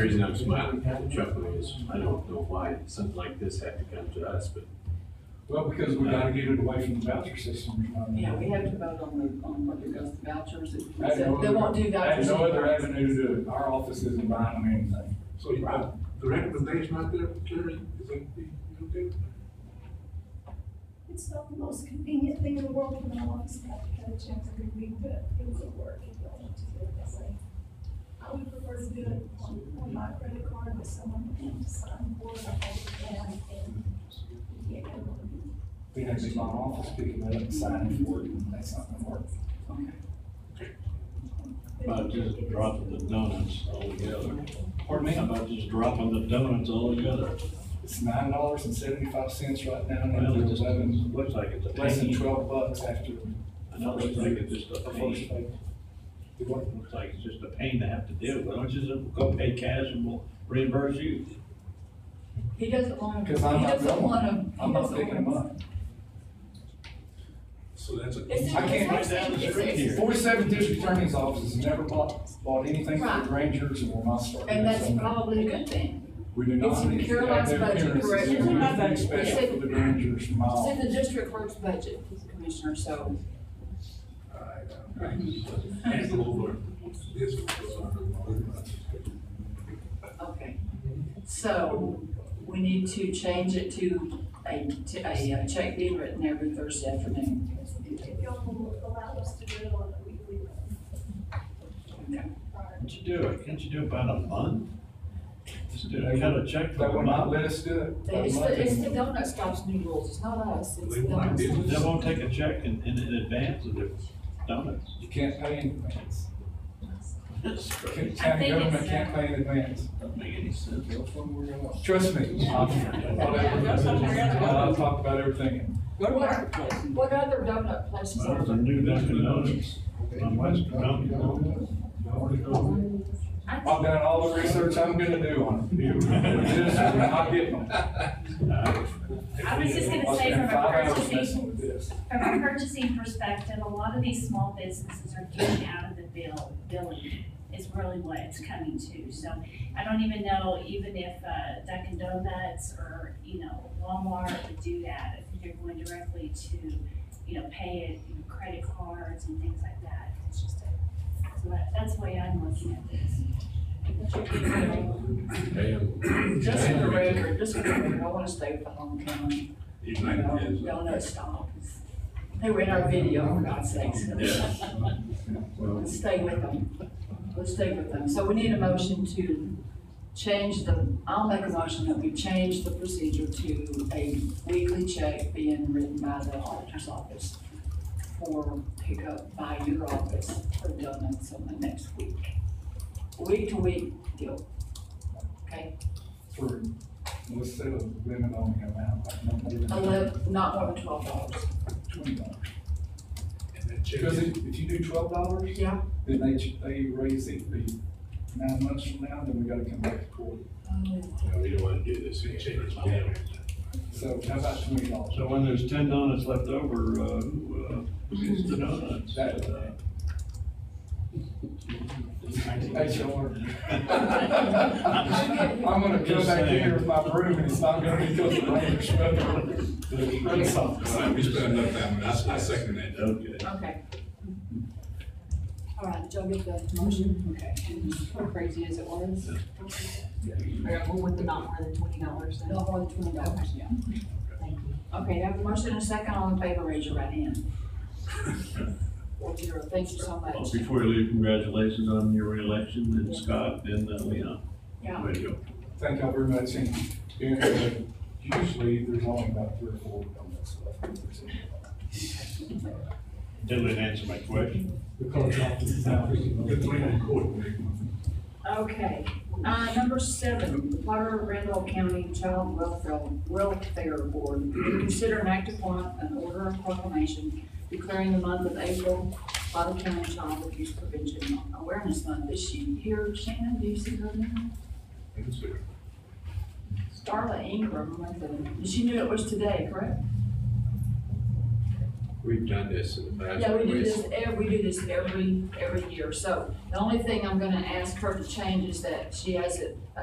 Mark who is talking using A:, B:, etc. A: The reason I'm smiling and chuckling is, I don't know why something like this had to come to us, but
B: Well, because we gotta get it away from the voucher system. you know what I mean?
C: Yeah, we have to vote on the, on what it goes to vouchers, if
B: I
C: we
B: had no
C: said, they
B: other-
C: won't do
B: I have
C: vouchers.
B: no other
C: anymore.
B: avenue to do it. Our office isn't buying them anything.
D: So you have, the recommendation out there, Terry, is that the, you okay? with that?
E: It's not the most convenient thing in the world for my office to have to cut a check every week, but it would work if you wanted to do it that way. I would prefer to do it on, on my credit card with someone who can sign for it, I can, and, yeah.
B: We have to be my office picking that up and signing for it, and that's not gonna work.
F: About just dropping the donuts altogether.
B: Pardon me?
F: About just dropping the donuts altogether.
B: It's nine dollars and seventy-five cents right now, and
F: Well, it
B: it's
F: just
B: eleven,
F: looks like it's a
B: less than
F: penny.
B: twelve bucks after
F: I know, it looks like it's just
B: the
F: a
B: first
F: penny.
B: pay.
F: It looks like it's just a pain to have to do. Why don't you just go pay cash and we'll reimburse you?
C: He doesn't want to, he
B: Cause I'm not
C: doesn't want
B: going,
C: to.
B: I'm not picking them up.
D: So that's a.
C: It's,
B: I can't
C: it's
F: go down the
C: actually,
F: street
C: it's,
F: here.
B: Forty-seven district attorney's offices never bought, bought anything for
C: Right.
B: the Rangers or my store.
C: and that's probably a good thing.
B: We do not
C: It's
B: need to have
C: Caroline's
B: their
C: budget,
B: appearances.
C: correct?
B: There's nothing
C: It's in my
B: special for the Rangers from my
C: It's in
B: office.
C: the district court's budget, Commissioner, so.
D: Hand over this one goes on.
C: Okay, so we need to change it to a, to a uh, check being written every Thursday afternoon.
E: If if y'all will allow us to do it on a weekly,
C: Okay.
E: prior.
F: Can't you do it? Can't you do about a month? Just do, cut a check for
B: That
F: a
B: would not
F: month.
B: let us do it. That
C: It's
B: would not
C: the, it's
B: do
C: the
B: it.
C: donut shop's new rules, it's not us, it's the
D: They want
C: donut
D: to
C: shop.
F: They won't take a check in, in, in advance of their donuts.
B: You can't pay in advance. County
G: I think
B: government
G: it's,
B: can't pay in advance.
F: Doesn't make any sense.
B: Trust me. I've-
C: Yeah, go somewhere else.
B: I've talked about everything.
C: What, what other donut places
F: Well,
C: are
F: it's a
C: there?
F: new Dunkin' Donuts on West Mountain.
G: I
B: I've done all the research I'm gonna do on it. This is when I get them.
F: Uh,
G: I was just gonna say from
B: Spend
G: a
B: five hours
G: purchasing-
B: messing with this.
G: From a purchasing perspective, a lot of these small businesses are getting out of the bill, billing is really what it's coming to. So I don't even know, even if uh, Dunkin' Donuts or, you know, Walmart would do that, I think they're going directly to, you know, pay it, you know, credit cards and things like that. It's just a, so that- that's the way I'm looking at this.
D: Damn.
C: Just for the record, just for the record, I wanna stay with the hometown, you know,
D: United is.
C: donut stop. They were in our video, for God's sakes.
D: Yes.
C: Let's stay with them, let's stay with them. So we need a motion to change the, I'll make a motion that we change the procedure to a weekly check being written by the auditor's office for pickup by your office for donuts on the next week. Week to week deal. Okay,
B: For, let's set a limit on the amount, like no more than
C: eleven, not more than twelve dollars.
B: twenty dollars.
D: And that check
B: Because
D: is
B: if, if you do twelve dollars,
C: Yeah.
B: then they, ch- they raise it, the nine months from now, then we gotta come back to court.
A: uh, we don't want to do this. We change it.
B: So how about twenty dollars?
F: So when there's ten donuts left over, uh, who, uh, who gets the donuts?
B: That, uh, HR. I'm gonna come
F: Just
B: back
F: saying.
B: here with my broom and it's not gonna be because of rain or snow.
D: All right, we spent enough time, I, I second that.
F: Okay.
C: Okay. All right, did y'all get the motion? Mm-hmm. Okay.
H: How crazy is it was? We're with the not more than twenty dollars then.
C: No more than twenty dollars, yeah.
H: Thank you.
C: Okay, I have a motion and a second, all in favor, raise your right hand. Four zero, thank you so
F: Well,
C: much.
F: Before you leave, congratulations on your reelection, and Scott, and uh, Leon.
C: Yeah.
F: Way to go.
B: Thank y'all very much, and, and uh, usually there's only about three or four of that stuff.
F: Didn't answer my question.
B: The coach office is out.
D: Good three in court.
C: Okay, uh, number seven, Potter Randall County Child Welfare, Welfare Board, consider an act upon an order of proclamation declaring the month of April Potter County Child Abuse Prevention Awareness Month. Is she here, Shannon, do you see her now? Starla Ingram, I think. she knew it was today, correct?
D: We've done this in the past.
C: Yeah, we do this every, we do this every, every year. So the only thing I'm gonna ask her to change is that she has it